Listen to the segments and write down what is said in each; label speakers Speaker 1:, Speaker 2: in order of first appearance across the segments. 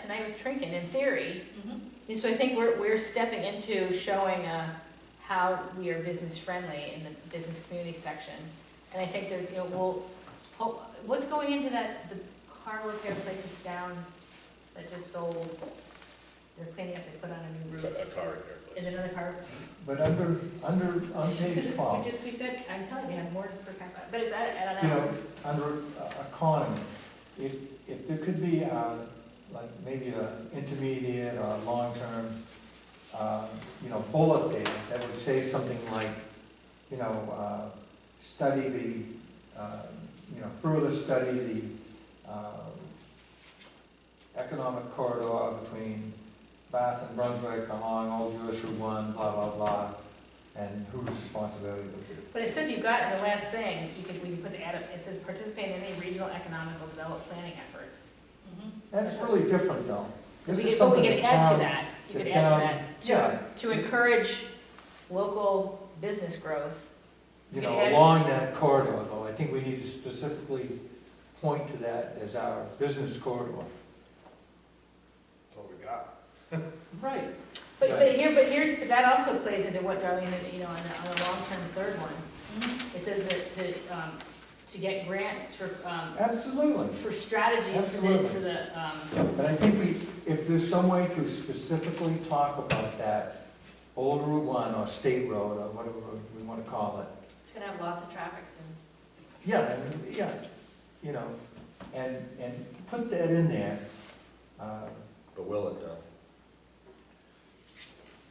Speaker 1: tonight with Trinken, in theory.
Speaker 2: Mhm.
Speaker 1: And so I think we're, we're stepping into showing, uh, how we are business friendly in the business community section. And I think that, you know, we'll, hope- what's going into that, the car repair place that's down, that just sold? They're cleaning up, they put on a new
Speaker 3: A
Speaker 1: roof,
Speaker 3: car repair
Speaker 1: is
Speaker 3: place.
Speaker 1: another car.
Speaker 4: But under, under, on
Speaker 1: This
Speaker 4: page
Speaker 1: is- We
Speaker 4: five,
Speaker 1: just, we could, I'm telling you, I'm more for, car- but it's, I I
Speaker 4: you
Speaker 1: don't know.
Speaker 4: know, under uh, economy, if, if there could be, uh, like maybe a intermediate or a long-term, uh, you know, bullet there that would say something like, you know, uh, study the, uh, you know, further study the, um, economic corridor between Bath and Brunswick along Old US Route One, blah, blah, blah, and whose responsibility would be.
Speaker 1: But it says you've got, in the last thing, you could, we can put the add, up, it says participate in any regional economical development planning efforts.
Speaker 2: Mhm.
Speaker 4: That's really different though. This
Speaker 1: We
Speaker 4: is
Speaker 1: could, but we
Speaker 4: something
Speaker 1: could
Speaker 4: the
Speaker 1: add to
Speaker 4: town-
Speaker 1: that, you
Speaker 4: the
Speaker 1: could add
Speaker 4: town-
Speaker 1: to that,
Speaker 4: Yeah, Mm-hmm.
Speaker 1: to encourage local business growth.
Speaker 4: you
Speaker 1: could
Speaker 4: know,
Speaker 1: add-
Speaker 4: along that corridor though, I think we need to specifically point to that as our business corridor.
Speaker 3: That's all we got.
Speaker 4: Right.
Speaker 1: But, but
Speaker 4: Right.
Speaker 1: here, but here's, but that also plays into what Darlene, you know, on the, on the long-term third one.
Speaker 2: Mhm.
Speaker 1: It says that, to, um, to get grants for, um,
Speaker 4: Absolutely,
Speaker 1: for strategies for the,
Speaker 4: Absolutely.
Speaker 1: for the, um,
Speaker 4: but I think we, if there's some way to specifically talk about that, Old Route One or State Road or whatever we wanna call it,
Speaker 2: It's gonna have lots of traffic soon.
Speaker 4: Yeah, and, yeah, you know, and, and put that in there. Uh,
Speaker 3: But will it though?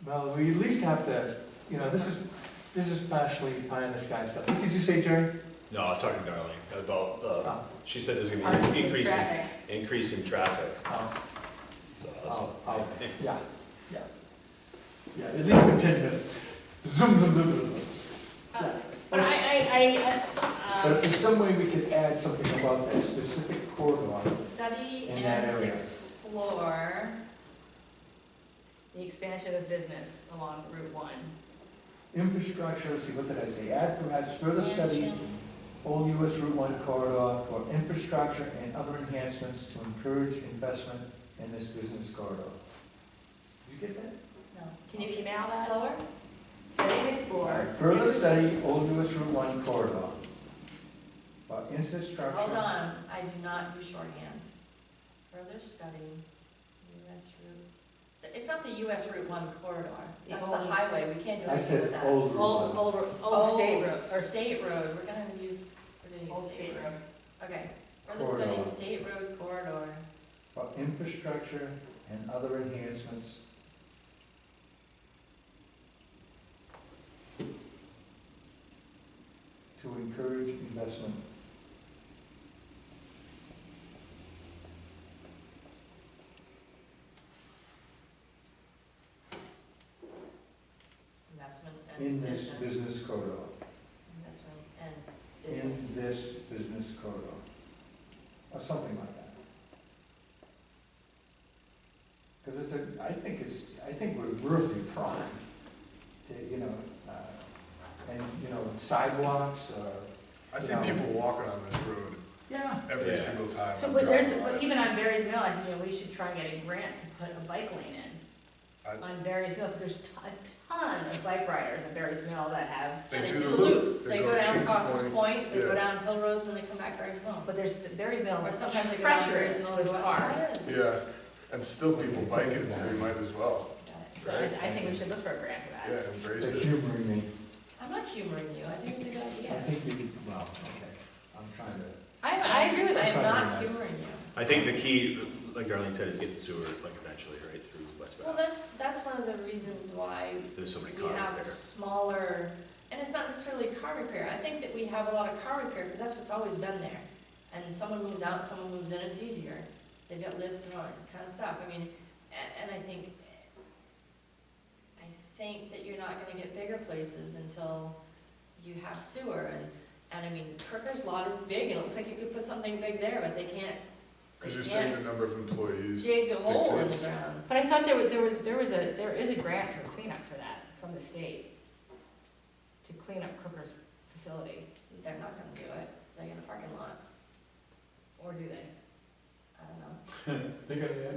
Speaker 4: Well, we at least have to, you know, this is, this is partially pie in the sky stuff. What did you say, Jerry?
Speaker 3: No, I was talking to Darlene about, uh,
Speaker 4: Oh,
Speaker 3: she said there's gonna
Speaker 1: on
Speaker 3: be an increase, in-
Speaker 1: traffic.
Speaker 3: increase in traffic.
Speaker 4: oh,
Speaker 3: So I was-
Speaker 4: oh, oh, yeah, yeah. Yeah, at least for ten minutes. Zoom, zoom, zoom, zoom. zoom.
Speaker 1: Uh, But I, I, I,
Speaker 4: But
Speaker 1: uh,
Speaker 4: if
Speaker 1: um,
Speaker 4: there's some way we could add something about that specific corridor,
Speaker 2: Study
Speaker 4: In that
Speaker 2: and
Speaker 4: area.
Speaker 2: explore.
Speaker 1: the expansion of business along Route one.
Speaker 4: infrastructure, let's see, what did I say? Add perhaps further study
Speaker 2: expansion.
Speaker 4: Old US Route One corridor for infrastructure and other enhancements to encourage investment in this business corridor. Did you get that?
Speaker 2: No.
Speaker 1: Can you email that?
Speaker 2: Slower?
Speaker 1: Study and explore.
Speaker 4: Further study Old US Route One corridor for infrastructure.
Speaker 2: Hold on, I do not do shorthand. Further study, US route, so it's not the US Route one corridor,
Speaker 1: The
Speaker 2: that's the
Speaker 1: old-
Speaker 2: highway, we can't do
Speaker 4: I
Speaker 2: anything with
Speaker 4: said
Speaker 2: that.
Speaker 4: Old Route
Speaker 1: Old,
Speaker 4: One.
Speaker 1: old, old state road,
Speaker 2: Oh, Or
Speaker 1: or
Speaker 2: state road, we're gonna use, we're gonna
Speaker 1: Old
Speaker 2: use state
Speaker 1: State
Speaker 2: road.
Speaker 1: Road.
Speaker 2: Okay, further study
Speaker 4: Corridor.
Speaker 2: state road corridor.
Speaker 4: For infrastructure and other enhancements. To encourage investment.
Speaker 2: Investment
Speaker 4: In
Speaker 2: and
Speaker 4: this
Speaker 2: business.
Speaker 4: business corridor.
Speaker 2: Investment and
Speaker 4: In
Speaker 2: business.
Speaker 4: this business corridor. Or something like that. Because it's a, I think it's, I think we're really primed to, you know, uh, and, you know, sidewalks or,
Speaker 5: I see
Speaker 4: Yeah.
Speaker 5: people walking on this road
Speaker 4: yeah.
Speaker 5: every
Speaker 3: Yeah.
Speaker 5: single time.
Speaker 1: So,
Speaker 5: I'm
Speaker 1: but there's,
Speaker 5: driving by
Speaker 1: but
Speaker 5: it.
Speaker 1: even on Barry's Mill, I said, you know, we should try and get a grant to put a bike lane in.
Speaker 5: I-
Speaker 1: On Barry's Mill, because there's t- a ton of bike riders in Barry's Mill that have,
Speaker 2: Yeah, they do the loop, they go
Speaker 5: to
Speaker 2: down
Speaker 5: Chief's
Speaker 2: Foster's
Speaker 5: Point.
Speaker 2: Point, they go
Speaker 5: Yeah.
Speaker 2: down Hill Road, then they come back very well.
Speaker 1: but there's, Barry's Mill
Speaker 2: Or
Speaker 1: is
Speaker 2: sometimes they go down
Speaker 1: treacherous
Speaker 2: Barry's Mill to
Speaker 1: with
Speaker 2: go
Speaker 1: cars.
Speaker 5: Yeah, and still people biking, so you might as well,
Speaker 1: So I, I think we should look for a grant for
Speaker 5: yeah,
Speaker 1: that.
Speaker 5: embrace
Speaker 4: They're
Speaker 5: it.
Speaker 4: humoring me.
Speaker 2: I'm not humoring you, I think it's a good
Speaker 4: I
Speaker 2: idea.
Speaker 4: think we, well, okay, I'm trying to,
Speaker 1: I, I agree with
Speaker 2: I'm
Speaker 1: that.
Speaker 2: not humoring you.
Speaker 3: I think the key, like Darlene said, is getting sewer, like eventually, right, through West
Speaker 2: Well,
Speaker 3: Bath.
Speaker 2: that's, that's one of the reasons why
Speaker 3: There's so many
Speaker 2: we
Speaker 3: car
Speaker 2: have
Speaker 3: repair.
Speaker 2: smaller, and it's not necessarily car repair. I think that we have a lot of car repair, because that's what's always been there. And someone moves out, someone moves in, it's easier. They've got lifts and all that kind of stuff. I mean, and, and I think, I think that you're not gonna get bigger places until you have sewer. And, and I mean, Kirker's lot is big, and it looks like you could put something big there, but they can't,
Speaker 5: Cause you're
Speaker 2: they
Speaker 5: saying
Speaker 2: can't
Speaker 5: the number of employees,
Speaker 2: dig a hole in the
Speaker 5: dictates.
Speaker 2: ground.
Speaker 1: But I thought there was, there was, there was a, there is a grant for cleanup for that from the state to clean up Crooker's facility,
Speaker 2: They're not gonna do it. They got a parking lot,
Speaker 1: or do they?
Speaker 2: I don't know.
Speaker 4: they're gonna add